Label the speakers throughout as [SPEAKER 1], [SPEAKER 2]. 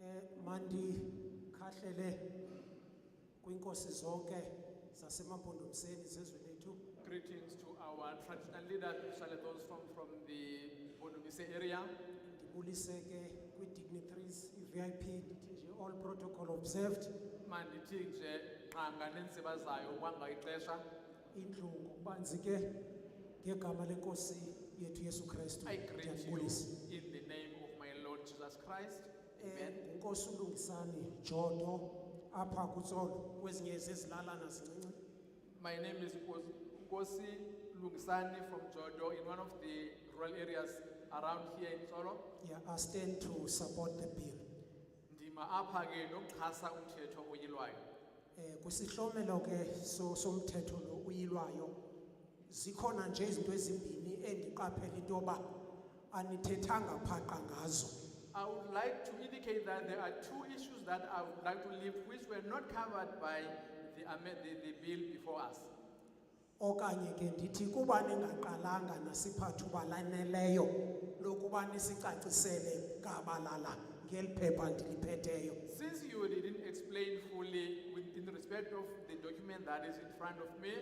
[SPEAKER 1] eh mandikhahlele kwinkosi zonke zasemampondomiseni zezwe lethu
[SPEAKER 2] Greetings to our traditional leaders, especially those from, from the Bonumise area.
[SPEAKER 1] ndibulise ke kwi-dignitaries i-vip ndithi nje all protocol observed
[SPEAKER 2] Mandithi nje qha nganentsiba zayo kwangexesha.
[SPEAKER 1] indlu ngokubanzi ke ngegama lenkosi yethu yesu kristu
[SPEAKER 2] I greet you
[SPEAKER 1] ndiyakubulisa
[SPEAKER 2] in the name of my Lord Jesus Christ.
[SPEAKER 1] Eh,
[SPEAKER 2] Amen.
[SPEAKER 1] ngunkosi ulungisani jodo apha kutsolo kwezinye zezilalana zincinci
[SPEAKER 2] My name is Nkosi Lungisani from Jodo in one of the rural areas around here in Solo.
[SPEAKER 1] yeah, i stand to support the bill
[SPEAKER 2] Ndima apha ke nokuxhasa umthetho oyilwayo.
[SPEAKER 1] eh kusihlomelo ke so somthetho lo uyilwayo zikhona nje izinto ezimbini endiqaphela into yoba anithethanga phaqa ngazo
[SPEAKER 2] I would like to indicate that there are two issues that I would like to leave which were not covered by the, ame- the, the bill before us.
[SPEAKER 1] okanye ke ndithi kuba ningaqalanga nasiphathuba laneleyo lokuba nisicacisele kabalala ngeli phepha ndiliphetheyo
[SPEAKER 2] Since you didn't explain fully with, in respect of the document that is in front of me,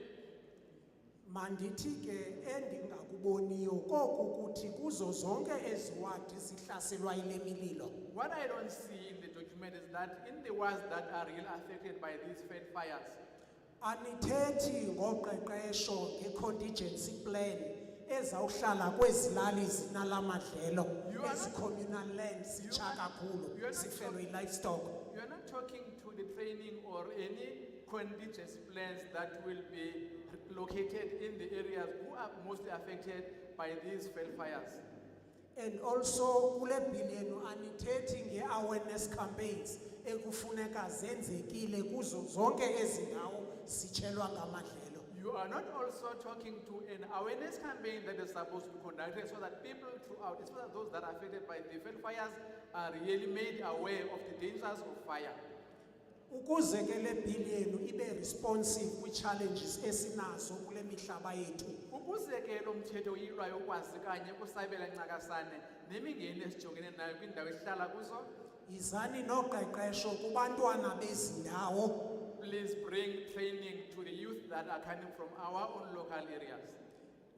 [SPEAKER 1] mandithi ke endingakuboniyo koku kuthi kuzo zonke eziwadi zihlaselwa yile mililo
[SPEAKER 2] what I don't see in the document is that in the ones that are really affected by these fed fires,
[SPEAKER 1] Anithethi ngoqeqesho ngecontingency plan ezawuhlala kwezilali zinalamadlelo
[SPEAKER 2] You are not-
[SPEAKER 1] ezicommunal lands
[SPEAKER 2] You
[SPEAKER 1] zitsha
[SPEAKER 2] are- you
[SPEAKER 1] kakhulu
[SPEAKER 2] are not
[SPEAKER 1] zifelwe
[SPEAKER 2] talking-
[SPEAKER 1] yi-livestock
[SPEAKER 2] you are not talking to the training or any contingency plans that will be located in the areas who are mostly affected by these fed fires.
[SPEAKER 1] and also kule bill yenu anithethi nge-awareness campaigns ekufuneka zenzekile kuzo zonke ezi ndawo zitshelwa ngamadlelo
[SPEAKER 2] You are not also talking to an awareness campaign that is supposed to be conducted so that people throughout, especially those that are affected by the field fires, are really made aware of the dangers of fire.
[SPEAKER 1] ukuze ke le bill yenu ibe responsive kwii-challenges esinazo kule mihlaba yethu
[SPEAKER 2] ukuze ke lo mthetho uyilwayo ukwazi kanye ukusabela ncakasane nemingeni esijongene nayo kwindawo esihlala kuzo
[SPEAKER 1] Izani noqeqesho kubantwana bezindawo
[SPEAKER 2] please bring training to the youth that are coming from our own local areas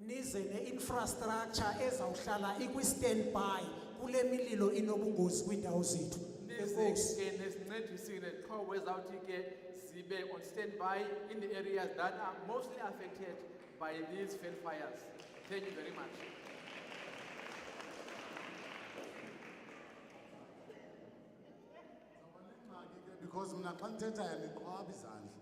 [SPEAKER 1] nize neinfrastructure ezawuhlala ikwi-standby kule mililo inobungozi kwiindawo zethu
[SPEAKER 2] nize
[SPEAKER 1] enkosi
[SPEAKER 2] ke nesincedisi nezixhobo ezawuthi ke zibe on standby in the areas that are mostly affected by these fail fires thank you very much
[SPEAKER 3] Ngxaki ke, because mna xa ndithethayo ndiqhwaba izandla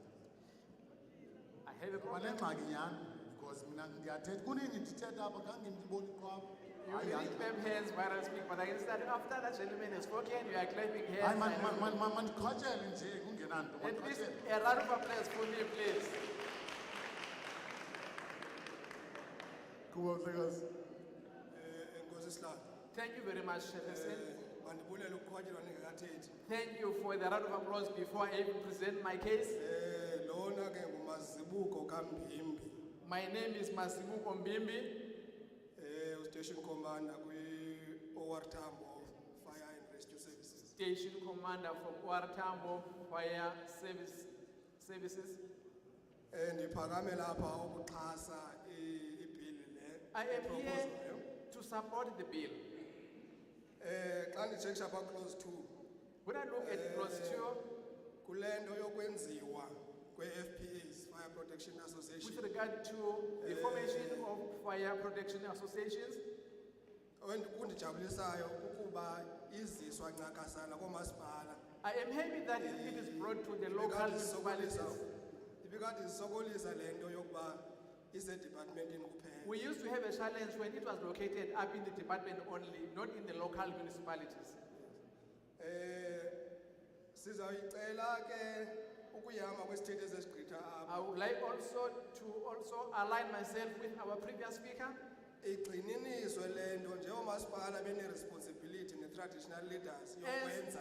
[SPEAKER 2] i have a
[SPEAKER 3] ngoba
[SPEAKER 2] problem
[SPEAKER 3] nengxaki nyhani because mna ndiyathetha kunini ndithetha apha khange ndibone iqhwaba
[SPEAKER 2] you
[SPEAKER 3] Hayi,
[SPEAKER 2] really clap hands while i speak but i can see that after that gentleman has spoken you are clapping hands
[SPEAKER 3] hayi, man-
[SPEAKER 2] I
[SPEAKER 3] man-
[SPEAKER 2] don't-
[SPEAKER 3] man- man- mandiqhatshele nje kungenanto
[SPEAKER 2] at least
[SPEAKER 3] mandiqhatshele
[SPEAKER 2] a round of applause for me please
[SPEAKER 3] kuba mhlekazi
[SPEAKER 4] Eh, Nkosi Sihlalo,
[SPEAKER 2] thank you very much Shepherdson.
[SPEAKER 4] eh, mandibulele ukuqhotyelwa ningekathethi.
[SPEAKER 2] thank you for the round of applause before i even present my case
[SPEAKER 4] Eh, lona ke ngumazibuko kaMbimbi,
[SPEAKER 2] my name is masibuko mbimbi
[SPEAKER 4] eh, ustation commander kwi-OR Tambo Fire and Rescue Services.
[SPEAKER 2] station commander from Tambo fire service services
[SPEAKER 4] Eh, ndiphakame lapha ukuxhasa i- ibhili le.
[SPEAKER 2] I am
[SPEAKER 4] eproposwayo.
[SPEAKER 2] here to support the bill.
[SPEAKER 4] Eh, xa nditshekisha apha close two,
[SPEAKER 2] When I look at clause two,
[SPEAKER 4] kule nto yokwenziwa kwe-FPAs, Fire Protection
[SPEAKER 2] with
[SPEAKER 4] Association,
[SPEAKER 2] regard to the formation of fire protection associations,
[SPEAKER 4] ondi- kundijabulisayo kukuba iziswa ncakasana koomasipala.
[SPEAKER 2] I am happy that it is brought to the local municipalities.
[SPEAKER 4] Ibikade isokolisa lento yokuba ise departmentini kuphela.
[SPEAKER 2] We used to have a challenge when it was located up in the department only, not in the local municipalities.
[SPEAKER 4] Eh sizayicela ke ukuyama kwesithethe esesigqitha apha.
[SPEAKER 2] I would like also to also align myself with our previous speaker.
[SPEAKER 4] Igxininiswe lento njengomasipala bene responsibility ne traditional leaders yokwenza